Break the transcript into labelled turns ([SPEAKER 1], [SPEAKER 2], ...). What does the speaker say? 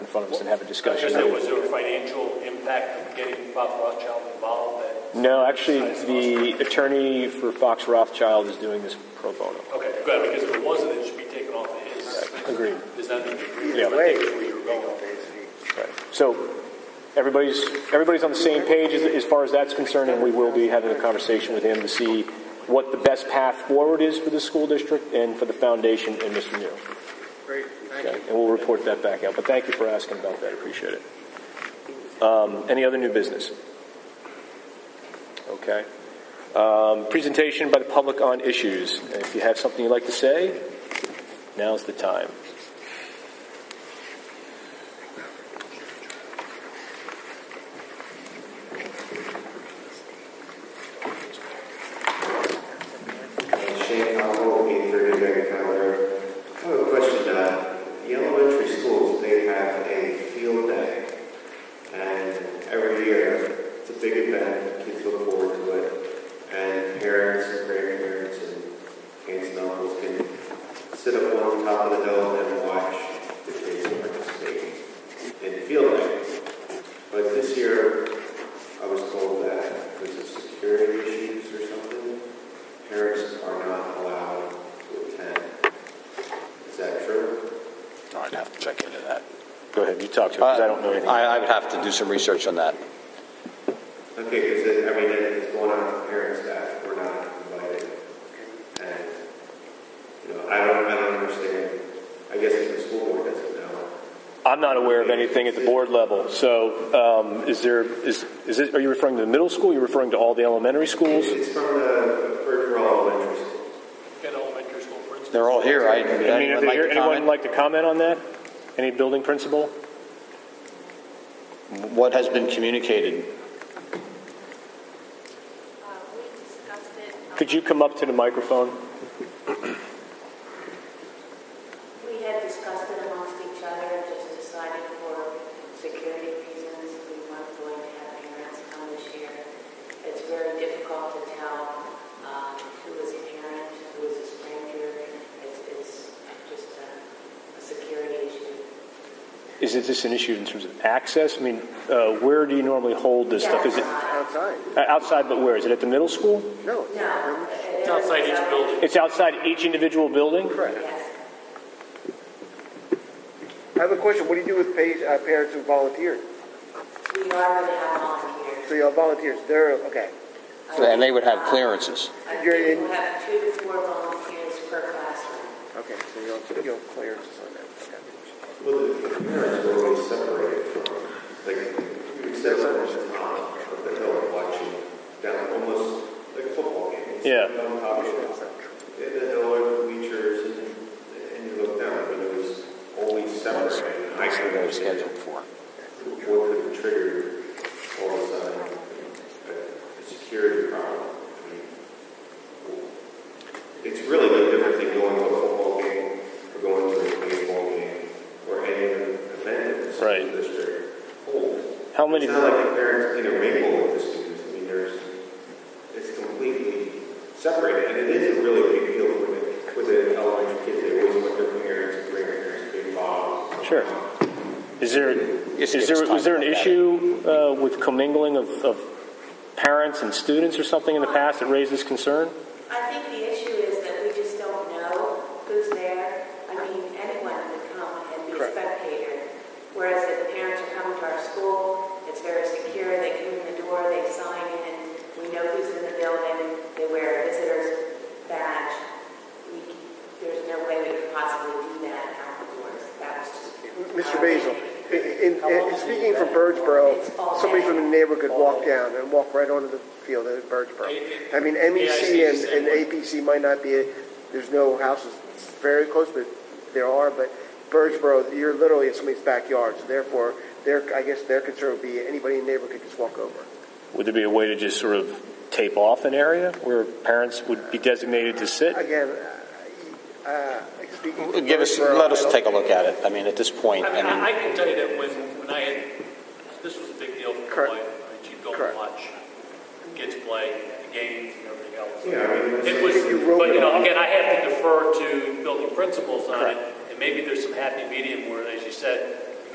[SPEAKER 1] front of us and have a discussion.
[SPEAKER 2] Because there was there a financial impact of getting Bob Rothschild involved that,
[SPEAKER 1] No, actually, the attorney for Fox Rothschild is doing this pro bono.
[SPEAKER 2] okay, good, because if it wasn't, it should be taken off of his.
[SPEAKER 1] Agreed.
[SPEAKER 2] There's nothing to agree
[SPEAKER 1] Yeah.
[SPEAKER 2] with, but I think that's where you were going.
[SPEAKER 1] Right. So everybody's, everybody's on the same page as, as far as that's concerned, and we will be having a conversation with him to see what the best path forward is for the school district and for the foundation and Mr. Neal.
[SPEAKER 3] Great, thank
[SPEAKER 1] Okay,
[SPEAKER 3] you.
[SPEAKER 1] and we'll report that back out. But thank you for asking about that. I appreciate it. Um, any other new business? Okay. Um, presentation by the public on issues. And if you have something you'd like to say, now's the time.
[SPEAKER 4] Shane Howell, 830 Marion Calendar. I have a question. uh, The elementary schools, they have a field day. And every year, it's a big event, kids look forward to it. And parents and grandparents and aunts and uncles can sit up on top of the dome and watch the kids participate in the field day. But this year, I was told that because of security issues or something, parents are not allowed to attend. Is that true?
[SPEAKER 5] I'd have to check into that.
[SPEAKER 1] Go ahead. You talk to it because I don't know anything.
[SPEAKER 5] Uh, I, I would have to do some research on that.
[SPEAKER 4] Okay, because I mean, it's going on with parents that we're not invited, and you know, I don't, I don't understand. I guess if the school board doesn't know.
[SPEAKER 1] I'm not aware of anything at the board level. So, um, is there is is it? Are you referring to the middle school? You're referring to all the elementary schools?
[SPEAKER 4] It's from the Virgil Elementary School.
[SPEAKER 2] Get elementary school principal.
[SPEAKER 5] They're all here. I,
[SPEAKER 1] I mean, if there-
[SPEAKER 5] anyone like to
[SPEAKER 1] anyone
[SPEAKER 5] comment?
[SPEAKER 1] like to comment on that? Any building principal?
[SPEAKER 5] what has been communicated?
[SPEAKER 6] Uh, We discussed it. um,
[SPEAKER 1] Could you come up to the microphone?
[SPEAKER 6] We had discussed it amongst each other, and just decided for security reasons, we weren't going to have parents come this year. It's very difficult to tell um, who is a parent, who is a stranger. It's, it's just a a security issue.
[SPEAKER 1] Is it just an issue in terms of access? I mean, uh, where do you normally hold this stuff? Is it
[SPEAKER 3] Outside?
[SPEAKER 1] uh, outside? But where is it? At the middle school?
[SPEAKER 3] No.
[SPEAKER 6] No.
[SPEAKER 2] It's outside each building.
[SPEAKER 1] It's outside each individual building.
[SPEAKER 3] Correct.
[SPEAKER 6] Yes.
[SPEAKER 3] I have a question. What do you do with pa- uh, parents who volunteer?
[SPEAKER 6] We are going to have volunteers.
[SPEAKER 3] So y'all volunteers, they're, okay.
[SPEAKER 5] And they would have clearances.
[SPEAKER 6] I think
[SPEAKER 3] You're in-
[SPEAKER 6] we'll have two to four volunteers per classroom.
[SPEAKER 3] Okay, so you'll, you'll clear this on that. Okay.
[SPEAKER 4] Well, the parents were always separated from, like, except for the top of the hill, watching down almost like a football game. It's
[SPEAKER 1] Yeah.
[SPEAKER 4] On top of it. They had the hill and bleachers, and, and you look down, but it was always separated. I
[SPEAKER 5] That's what
[SPEAKER 4] can
[SPEAKER 5] they were scheduled for.
[SPEAKER 4] What could have triggered all of a sudden a- a security problem? I mean, It's really no different than going to a football game or going to a baseball game or any other event that the school
[SPEAKER 1] Right.
[SPEAKER 4] district holds.
[SPEAKER 1] How many?
[SPEAKER 4] It's not like the parents intermingle with the students. I mean, there's, it's completely separated, and it is a really big deal for the, for the elementary kids. They always want their parents and grandparents to be involved.
[SPEAKER 1] Sure. Is there
[SPEAKER 5] Yes,
[SPEAKER 1] is
[SPEAKER 5] yes,
[SPEAKER 1] there
[SPEAKER 5] time
[SPEAKER 1] is there an
[SPEAKER 5] about that.
[SPEAKER 1] issue uh, with commingling of, of parents and students or something in the past that raises concern?
[SPEAKER 6] I think the issue is that we just don't know who's there. I mean, anyone could come and be a
[SPEAKER 3] Correct.
[SPEAKER 6] spectator. Whereas if the parents are coming to our school, it's very secure, they come in the door, they sign in, we know who's in the building, they wear a visitor's badge. We, there's no way we could possibly do that outdoors. That was just.
[SPEAKER 3] Mr. Basil, in, in, in speaking from Birdsboro, somebody from the neighborhood could walk down and walk right onto the field at Birdsboro. I mean, MEC and, and APC might not be, a, there's no houses very close, but there are, but Birdsboro, you're literally in somebody's backyard, so therefore, their, I guess their concern would be anybody in the neighborhood could just walk over.
[SPEAKER 1] Would there be a way to just sort of tape off an area where parents would be designated to sit?
[SPEAKER 3] Again, uh, uh, speaking from
[SPEAKER 5] Give us,
[SPEAKER 3] Birdsboro,
[SPEAKER 5] let us
[SPEAKER 3] I don't-
[SPEAKER 5] take a look at it. I mean, at this point,
[SPEAKER 2] I
[SPEAKER 5] I
[SPEAKER 2] mean, I I
[SPEAKER 5] mean,
[SPEAKER 2] can tell you that when, when I had, this was a big deal for
[SPEAKER 3] Correct.
[SPEAKER 2] my, my chief goal
[SPEAKER 3] Correct.
[SPEAKER 2] to watch kids play, the games and everything else.
[SPEAKER 4] Yeah, I mean, it's-
[SPEAKER 2] It was,
[SPEAKER 3] you rope
[SPEAKER 2] but you
[SPEAKER 3] it
[SPEAKER 2] know,
[SPEAKER 3] off.
[SPEAKER 2] again, I have to defer to building principals on it, and maybe there's some happy medium where, as you said,